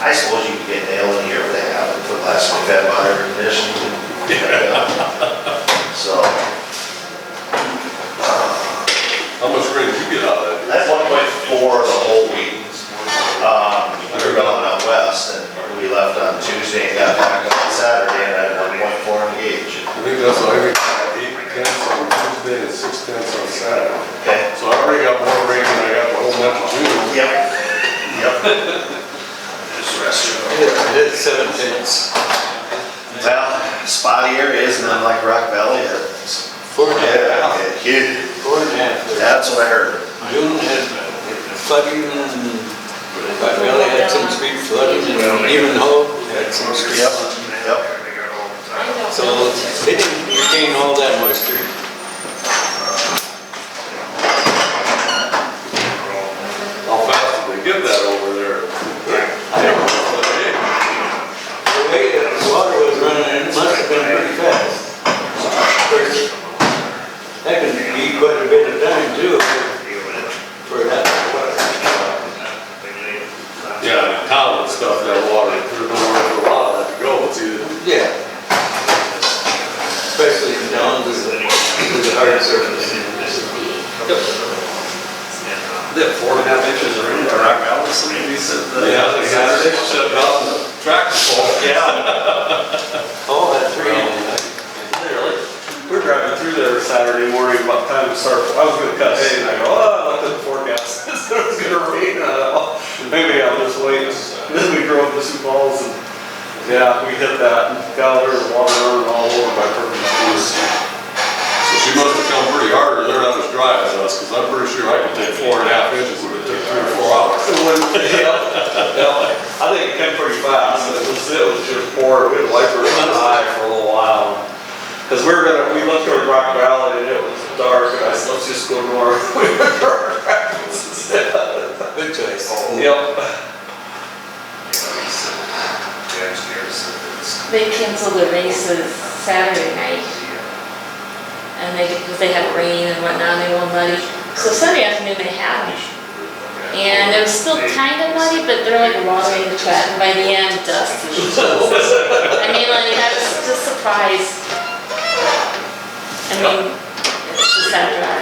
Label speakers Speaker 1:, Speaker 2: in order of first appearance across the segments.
Speaker 1: I suppose you could get nailed in here with a half a foot less than that by air conditioning. So,
Speaker 2: How much rain did you get out of that?
Speaker 1: that's one point four the whole week. Um, we were going out west and we left on Tuesday and got back on Saturday and I had one point four on the gauge.
Speaker 2: I think that's, I think eight tenths on Tuesday and six tenths on Saturday.
Speaker 1: Okay?
Speaker 2: So I already got more rain than I got the whole month of June.
Speaker 1: Yep, yep. Just restroom.
Speaker 3: It is seven tenths.
Speaker 1: Well, spotty area isn't unlike Rock Valley. It's-
Speaker 3: Four and a
Speaker 1: Yeah,
Speaker 3: half,
Speaker 1: it hit.
Speaker 3: four and a half. there.
Speaker 1: That's what I heard.
Speaker 3: June had flooding and, but we only had some street flooding and even Hope had some street.
Speaker 1: Yep, yep.
Speaker 3: So they didn't retain all that moisture.
Speaker 2: How fast did they get that over there?
Speaker 3: I don't know, the way that the water was running, it must have been pretty fast. Of course, That can be quite a bit of time too for that water.
Speaker 2: Yeah, in town and stuff, that water, there's nowhere for a lot of that to go, it's either
Speaker 3: Yeah. Especially down to the, to the hard surface.
Speaker 4: Did four and a half inches of rain in Rock Valley, somebody said. uh, that-
Speaker 2: Yeah, they had it shut down, the tractor pulled.
Speaker 4: Yeah,
Speaker 3: Oh, that's
Speaker 4: literally. We're driving through there Saturday morning, about the time it started, I was gonna cut hay, and I go, oh, I looked at the forecast, it said it was gonna rain, and I thought, maybe I'll just wait. Then we drove to Sioux Falls, and, yeah, we hit that, and got there, and water running all over my purple shoes.
Speaker 2: So she must have come pretty hard, or they're not as dry as us, because I'm pretty sure I could take four and a half inches, it would take three or four hours.
Speaker 4: It went- yeah, yeah. I think it came pretty fast, it was, it was just poor, we had wipers on high for a little while. Cause we were gonna, we looked toward Rock Valley and it was dark, and I said, let's just go north. We went to our practice instead.
Speaker 3: Good choice.
Speaker 4: Yep,
Speaker 5: They canceled the races Saturday night. And they, because they had rain and whatnot, they were muddy. So Sunday afternoon they had me. And it was still kind of muddy, but they're like watering the track, and by the end, dust. and shit. I mean, like, I was just surprised. I mean, it's just that dry.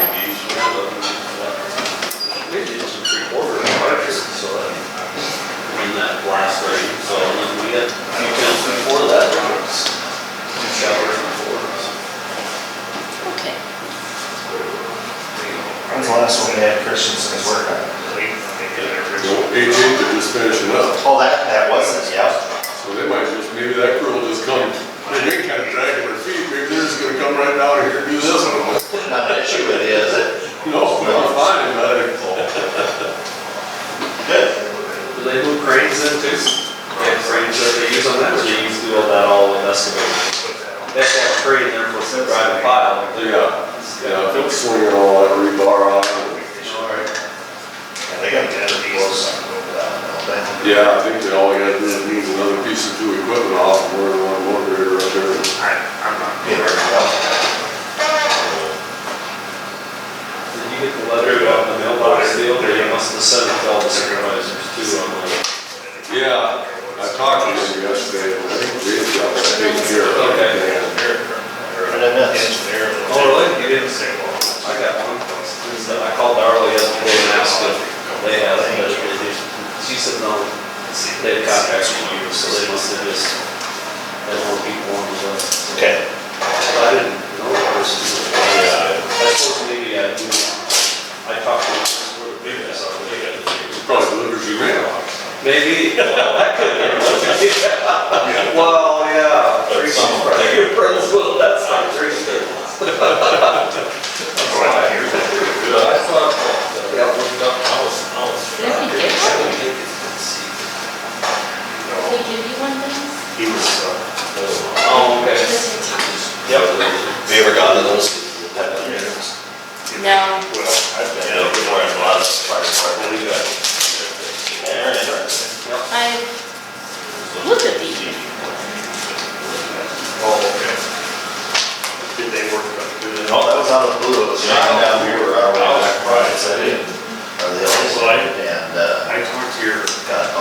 Speaker 4: we did some three quarter wipers, so that, in that last rain, so then we had, we just before that, there was two showers before.
Speaker 5: Okay.
Speaker 1: When's the last one we had Christensen's work on?
Speaker 2: Eighteenth, they're just finishing up,
Speaker 1: Oh, that, that wasn't, yep.
Speaker 2: so they might just, maybe that crew will just come, they kind of dragging their feet, maybe they're just gonna come right down here and do this one.
Speaker 1: Not an issue with it, is it?
Speaker 2: No, we're fine, but
Speaker 1: Good.
Speaker 4: Do they move cranes in too? Yeah, cranes that they use on that, or they use do all that all with excavator? They have to have a crane there for sit right pile.
Speaker 2: yeah, yeah, if it's swinging all that rebar on it.
Speaker 1: Yeah, they got good deals on over that, don't they?
Speaker 2: Yeah, I think they all got, this means another piece of two equipment off, and we're in one motor right there.
Speaker 1: Get her to
Speaker 4: Did you get the letter on the mailbox deal, or you must have sent it to all the supervisors too on the?
Speaker 2: Yeah, I talked to him yesterday, and I think Ray's got that taken care of.
Speaker 4: Okay.
Speaker 1: go. What did I miss?
Speaker 4: Oh, really? You didn't say one? I got one. So I called Darla yesterday and asked if they had a measure, she said no. They got back from you, so they must have just, they won't be one of us.
Speaker 1: Okay.
Speaker 4: I didn't know the person. I suppose maybe I do, I talked to her, maybe I saw her, maybe I did.
Speaker 2: Probably delivers your mailbox.
Speaker 4: Maybe, well, that could be. Well, yeah.
Speaker 2: But some-
Speaker 4: Your friends will, that's not true.
Speaker 2: Yeah, I thought,
Speaker 4: Oh,
Speaker 1: uh,